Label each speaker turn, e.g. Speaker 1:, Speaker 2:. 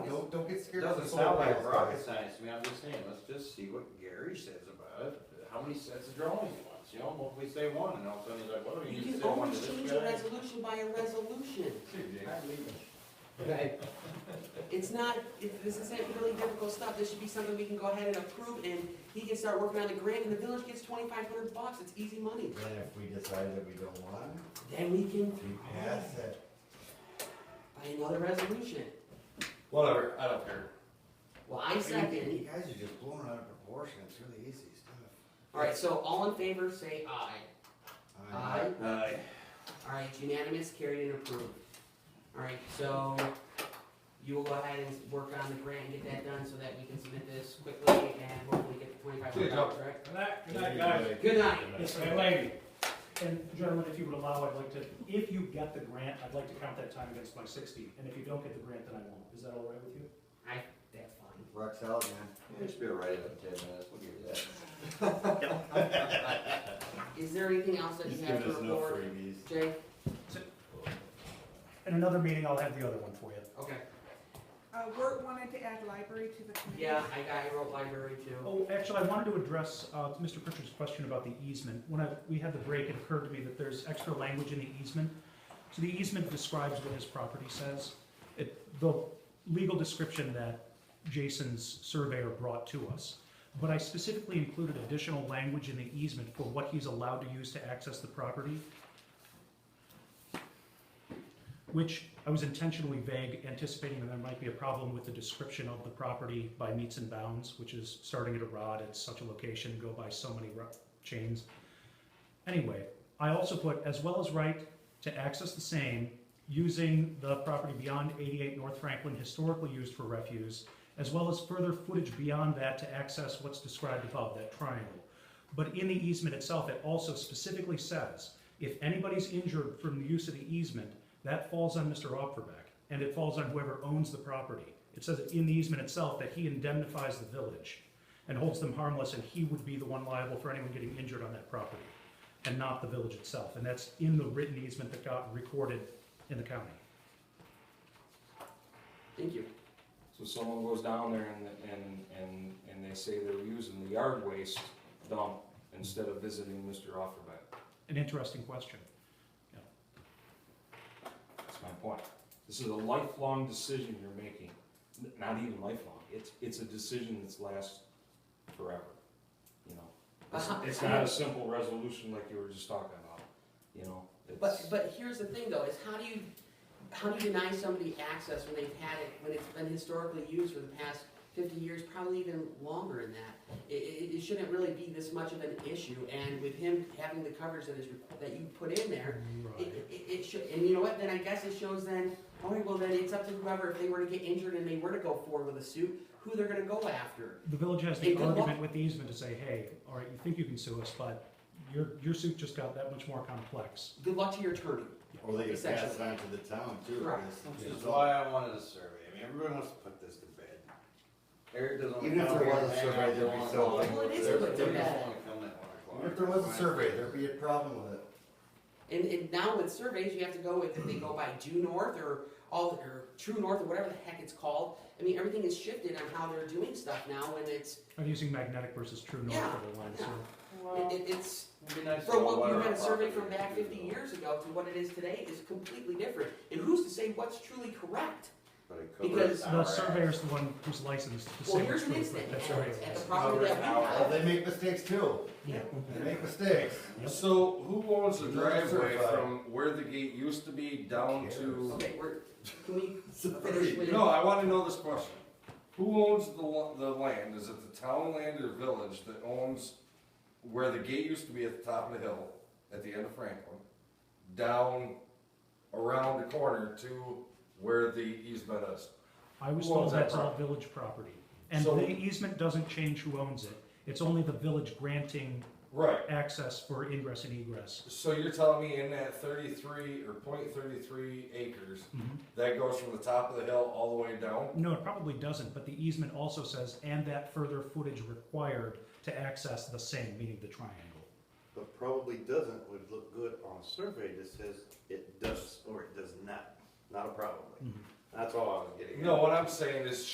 Speaker 1: figure out the
Speaker 2: Doesn't
Speaker 1: solar
Speaker 2: sound like
Speaker 1: panels.
Speaker 2: rocket science to me, I'm just saying, let's just see what Gary says about it, how many sets of drawings he wants, you know, hopefully say one, and all of a sudden he's like, what do
Speaker 3: You
Speaker 2: you
Speaker 3: can
Speaker 2: say one to
Speaker 3: always
Speaker 2: this
Speaker 3: change a
Speaker 2: guy?
Speaker 3: resolution by a resolution.
Speaker 1: Right.
Speaker 3: It's not, it- this isn't really difficult stuff, this should be something we can go ahead and approve, and he can start working on the grant, and the village gets twenty-five hundred bucks, it's easy money.
Speaker 1: Then if we decide that we don't want it,
Speaker 3: Then we can
Speaker 1: we pass it.
Speaker 3: buy another resolution.
Speaker 2: Whatever, I don't care.
Speaker 3: Well, I
Speaker 1: You
Speaker 3: second,
Speaker 1: guys are just blown out of proportion, it's really easy stuff.
Speaker 3: alright, so all in favor, say aye. Aye.
Speaker 2: Uh,
Speaker 3: Alright, unanimous, carried and approved. Alright, so you will go ahead and work on the grant and get that done so that we can submit this quickly and hopefully get the twenty-five hundred dollars, right?
Speaker 4: Good night, good night, guys.
Speaker 3: Good night.
Speaker 4: Yes, my lady. And gentlemen, if you would allow, I'd like to, if you get the grant, I'd like to count that time against my sixty, and if you don't get the grant, then I won't. Is that all right with you?
Speaker 3: I, that's fine.
Speaker 1: Rocks out, man.
Speaker 2: it should be all right in ten minutes, we'll give you that.
Speaker 3: Is there anything else that you have to report,
Speaker 1: freebies.
Speaker 3: Jay?
Speaker 4: In another meeting, I'll have the other one for you.
Speaker 3: Okay,
Speaker 5: Uh, Wirt wanted to add library to the committee.
Speaker 3: yeah, I got, I wrote library too.
Speaker 4: Oh, actually, I wanted to address, uh, Mr. Pritchard's question about the easement. When I, we had the break, it occurred to me that there's extra language in the easement. So the easement describes what his property says. It, the legal description that Jason's surveyor brought to us. But I specifically included additional language in the easement for what he's allowed to use to access the property. Which I was intentionally vague, anticipating that there might be a problem with the description of the property by meets and bounds, which is starting at a rod at such a location, go by so many ro- chains. Anyway, I also put, as well as right to access the same, using the property beyond 88 North Franklin historically used for refuse, as well as further footage beyond that to access what's described above, that triangle. But in the easement itself, it also specifically says, if anybody's injured from the use of the easement, that falls on Mr. Opferbeck, and it falls on whoever owns the property. It says in the easement itself that he indemnifies the village and holds them harmless, and he would be the one liable for anyone getting injured on that property, and not the village itself. And that's in the written easement that got recorded in the county.
Speaker 3: Thank you.
Speaker 6: So someone goes down there and, and, and, and they say they're using the yard waste dump instead of visiting Mr. Offerback.
Speaker 4: An interesting question.
Speaker 6: That's my point. This is a lifelong decision you're making. N- Not even lifelong. It's, it's a decision that's lasts forever, you know? It's,
Speaker 3: Uh-huh.
Speaker 6: it's not a simple resolution like you were just talking about, you know?
Speaker 3: But,
Speaker 6: It's-
Speaker 3: but here's the thing though, is how do you, how do you deny somebody access when they've had it, when it's been historically used for the past fifty years, probably even longer than that? It, it, it shouldn't really be this much of an issue, and with him having the coverage that is, that you put in there, it,
Speaker 4: Right.
Speaker 3: it- it, it should, and you know what, then I guess it shows then, all right, well then it's up to whoever, if they were to get injured and they were to go forward with a suit, who they're gonna go after.
Speaker 4: The village has
Speaker 3: Hey,
Speaker 4: the
Speaker 3: good luck.
Speaker 4: argument with the easement to say, hey, all right, you think you can sue us, but your, your suit just got that much more complex.
Speaker 3: Good luck to your attorney.
Speaker 1: Or they could pass it
Speaker 3: Essentially.
Speaker 1: on to the town too.
Speaker 3: Right.
Speaker 1: because
Speaker 2: Which
Speaker 1: it's
Speaker 2: is
Speaker 1: all-
Speaker 2: why I wanted a survey, I mean, everyone wants to put this to bed. Eric doesn't.
Speaker 1: Even if
Speaker 2: wanna
Speaker 1: there
Speaker 2: come
Speaker 1: was a
Speaker 2: hang
Speaker 1: survey,
Speaker 2: out
Speaker 1: there'd
Speaker 2: till
Speaker 1: be
Speaker 2: one
Speaker 1: something.
Speaker 2: o'clock.
Speaker 3: Well, it is
Speaker 2: There-
Speaker 3: put to
Speaker 2: there is
Speaker 3: bed.
Speaker 2: one come at one o'clock.
Speaker 1: If there was a
Speaker 2: Fine.
Speaker 1: survey, there'd be a problem with it.
Speaker 3: And, and now with surveys, you have to go with, if they go by due north or all, or true north or whatever the heck it's called. I mean, everything is shifted on how they're doing stuff now and it's,
Speaker 4: I'm using magnetic versus true north
Speaker 3: Yeah,
Speaker 4: for the line,
Speaker 3: yeah.
Speaker 4: so.
Speaker 3: it, it- it's,
Speaker 2: It'd be nice to
Speaker 3: from
Speaker 2: know
Speaker 3: what you
Speaker 2: our
Speaker 3: had a survey
Speaker 2: property
Speaker 3: from
Speaker 2: is,
Speaker 3: back
Speaker 2: you
Speaker 3: fifty
Speaker 2: know.
Speaker 3: years ago to what it is today is completely different. And who's to say what's truly correct?
Speaker 2: But it
Speaker 3: Because
Speaker 2: covers
Speaker 4: The
Speaker 2: our ass.
Speaker 4: surveyor's the one who's licensed to say
Speaker 3: Well, here's
Speaker 4: what's
Speaker 3: an
Speaker 4: true.
Speaker 3: incident,
Speaker 4: That's
Speaker 3: at
Speaker 4: right.
Speaker 3: at the property that we
Speaker 1: Well,
Speaker 3: have.
Speaker 1: they make mistakes too.
Speaker 3: Yeah.
Speaker 1: They make mistakes.
Speaker 7: So who owns the
Speaker 1: Not
Speaker 7: driveway
Speaker 1: certified.
Speaker 7: from where the gate used to be down to?
Speaker 3: Okay, we're, can we finish with?
Speaker 7: No, I wanna know this question. Who owns the, lo- the land? Is it the town land or village that owns where the gate used to be at the top of the hill, at the end of Franklin? Down around the corner to where the easement is?
Speaker 4: I was
Speaker 7: Who
Speaker 4: told
Speaker 7: owns that
Speaker 4: that's all
Speaker 7: property?
Speaker 4: village property. And
Speaker 7: So-
Speaker 4: the easement doesn't change who owns it. It's only the village granting
Speaker 7: Right,
Speaker 4: access for ingress and egress.
Speaker 7: So you're telling me in that thirty-three or point thirty-three acres,
Speaker 4: Mhm.
Speaker 7: that goes from the top of the hill all the way down?
Speaker 4: No, it probably doesn't, but the easement also says, and that further footage required to access the same, meaning the triangle.
Speaker 8: But probably doesn't would look good on a survey that says it does or it does not, not a probably. That's all I was getting at.
Speaker 7: No, what I'm saying is